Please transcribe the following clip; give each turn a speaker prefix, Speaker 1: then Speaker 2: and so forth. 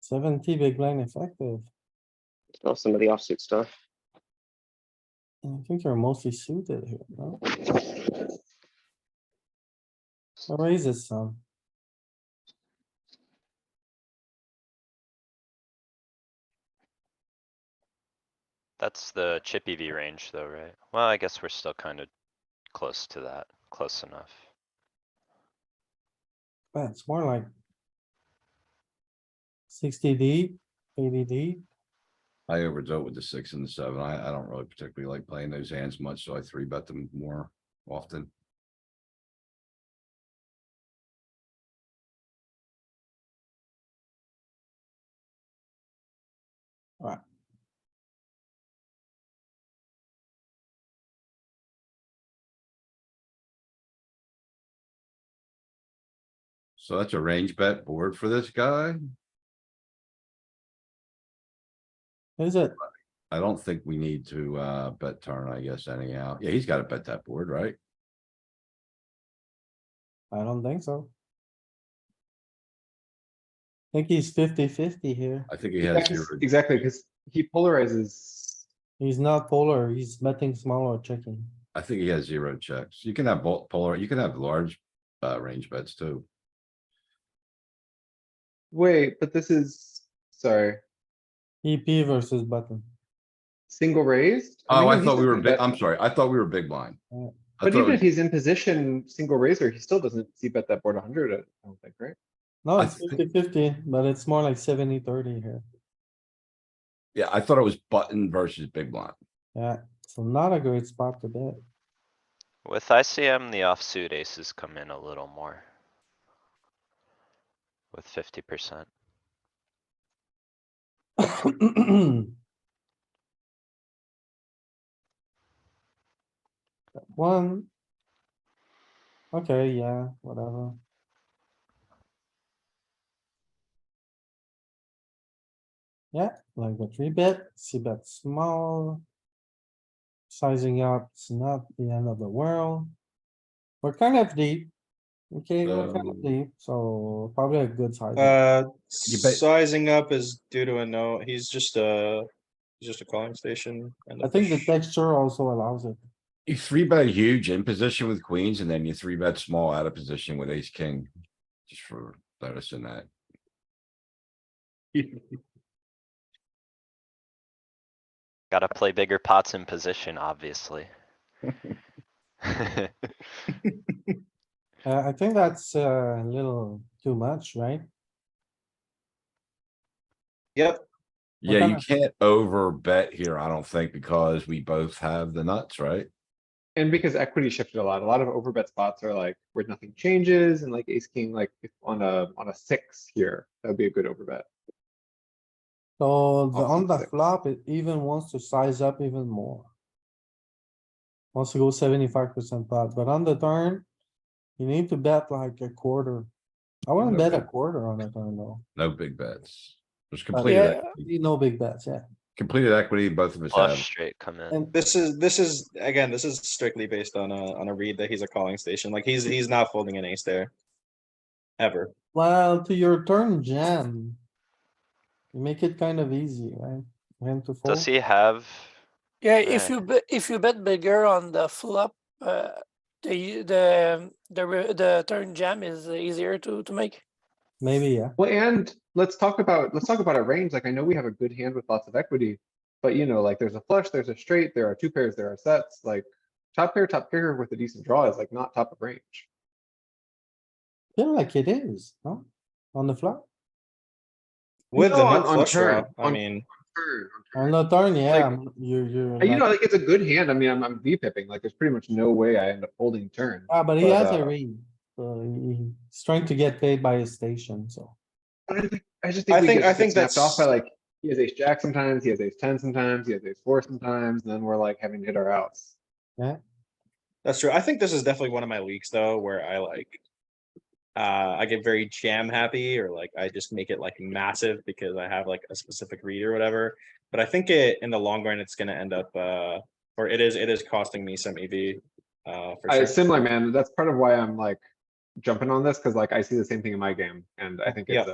Speaker 1: Seventy big blind effective.
Speaker 2: Still some of the offsuit stuff.
Speaker 1: I think you're mostly suited here, no? So Raises some.
Speaker 3: That's the chippy V range though, right? Well, I guess we're still kind of close to that, close enough.
Speaker 1: but it's more like. Sixty deep, eighty deep,
Speaker 4: I overdo it with the six and the seven. I, I don't really particularly like playing those hands much, so I three bet them more often. So that's a range bet board for this guy.
Speaker 1: is it?
Speaker 4: I don't think we need to, uh, bet turn, I guess, anyhow. Yeah, he's gotta bet that board, right?
Speaker 1: I don't think so. I Think he's 50-50 here.
Speaker 4: I think he has
Speaker 5: Exactly,
Speaker 4: zero.
Speaker 5: exactly, because he polarizes.
Speaker 1: He's not polar, he's betting small or checking.
Speaker 4: I think he has zero checks. You can have both polar, you can have large, uh, range bets too.
Speaker 5: Wait, but this is, sorry,
Speaker 1: EP E versus button.
Speaker 5: single raised?
Speaker 4: Oh,
Speaker 5: mean,
Speaker 4: I
Speaker 5: he's
Speaker 4: thought we were,
Speaker 5: doesn't
Speaker 4: big-
Speaker 5: bet- Oh,
Speaker 4: I'm sorry. I thought we were big blind.
Speaker 1: Yeah.
Speaker 4: I
Speaker 5: But
Speaker 4: thought
Speaker 5: even
Speaker 4: we-
Speaker 5: if he's in position, single raiser, he still doesn't see bet that board hundred, I don't think, right?
Speaker 1: No,
Speaker 4: I
Speaker 1: it's
Speaker 4: think-
Speaker 1: 50-50, but it's more like 70-30 here.
Speaker 4: Yeah, I thought it was button versus big blind.
Speaker 1: Yeah, so not a great spot to bet.
Speaker 3: With ICM, the offsuit aces come in a little more. With fifty percent.
Speaker 1: One. Okay, yeah, whatever. Yeah, like the three bet, see bet small. Sizing up, it's not the end of the world. We're kind of deep. Okay, we're kind of
Speaker 4: Um,
Speaker 1: deep, so probably a good size.
Speaker 6: Uh,
Speaker 4: You bet-
Speaker 6: sizing up is due to a no, he's just a, he's just a calling station. and
Speaker 1: I
Speaker 6: a
Speaker 1: think the
Speaker 6: push.
Speaker 1: texture also allows it.
Speaker 4: You three bet huge in position with queens and then you three bet small out of position with ace king. Just for noticing that.
Speaker 3: Gotta play bigger pots in position, obviously.
Speaker 1: Uh, I think that's uh, a little too much, right?
Speaker 6: Yep,
Speaker 1: What
Speaker 4: Yeah, you
Speaker 1: kinda-
Speaker 4: can't over bet here, I don't think, because we both have the nuts, right?
Speaker 5: And because equity shifted a lot, a lot of overbet spots are like where nothing changes and like ace king, like if on a, on a six here, that would be a good overbet.
Speaker 1: So the
Speaker 5: Also
Speaker 1: on the
Speaker 5: six.
Speaker 1: flop, it even wants to size up even more. Wants to go seventy-five percent pot, but on the turn, you need to bet like a quarter. I wouldn't bet a
Speaker 4: Okay.
Speaker 1: quarter on the turn though.
Speaker 4: No big bets. There's
Speaker 1: but
Speaker 4: completed,
Speaker 1: yeah,
Speaker 4: equity-
Speaker 1: you know, big bets, yeah.
Speaker 4: completed equity, both of us
Speaker 3: Flush
Speaker 4: have.
Speaker 3: straight come in.
Speaker 1: And
Speaker 6: this is, this is, again, this is strictly based on a, on a read that he's a calling station, like he's, he's not folding an ace there. Ever,
Speaker 1: well, to your turn jam. You make it kind of easy, right? Him to fold.
Speaker 3: Does he have?
Speaker 7: Yeah, if
Speaker 3: Yeah.
Speaker 7: you bet, if you bet bigger on the flop, uh, the, the, the, re- the turn jam is easier to, to make.
Speaker 1: Maybe, yeah.
Speaker 5: Well, and let's talk about, let's talk about a range. Like I know we have a good hand with lots of equity. But you know, like there's a flush, there's a straight, there are two pairs, there are sets, like top pair, top pair with a decent draw is like not top of range.
Speaker 1: Feel like it is, no? On the flop?
Speaker 6: with the
Speaker 5: No, on-
Speaker 6: nut
Speaker 5: on
Speaker 6: flush
Speaker 5: turn,
Speaker 6: draw, I
Speaker 5: on-
Speaker 6: mean,
Speaker 1: On the turn, yeah,
Speaker 5: Like-
Speaker 1: I'm- you, you're.
Speaker 5: And you know,
Speaker 1: like-
Speaker 5: like it's a good hand. I mean, I'm, I'm V pipping, like there's pretty much no way I end up holding turn.
Speaker 1: Ah, but he
Speaker 5: but,
Speaker 1: has a
Speaker 5: uh,
Speaker 1: ring, so he- he's trying to get paid by his station, so.
Speaker 5: But I think- I just
Speaker 6: I
Speaker 5: think we
Speaker 6: think- I
Speaker 5: get
Speaker 6: think
Speaker 5: get snapped off by
Speaker 6: that's-
Speaker 5: like, he has ace jack sometimes, he has ace ten sometimes, he has ace four sometimes, and then we're like having to hit our outs.
Speaker 6: that's true, I think this is definitely one of my weeks though, where I like. Uh, I get very jam happy, or like I just make it like massive because I have like a specific read or whatever. But I think it, in the long run, it's gonna end up, uh, or it is, it is costing me some EV. Uh, for
Speaker 5: I,
Speaker 6: sure.
Speaker 5: similar, man, that's part of why I'm like jumping on this, cause like I see the same thing in my game, and I think
Speaker 6: Yeah.
Speaker 5: it's a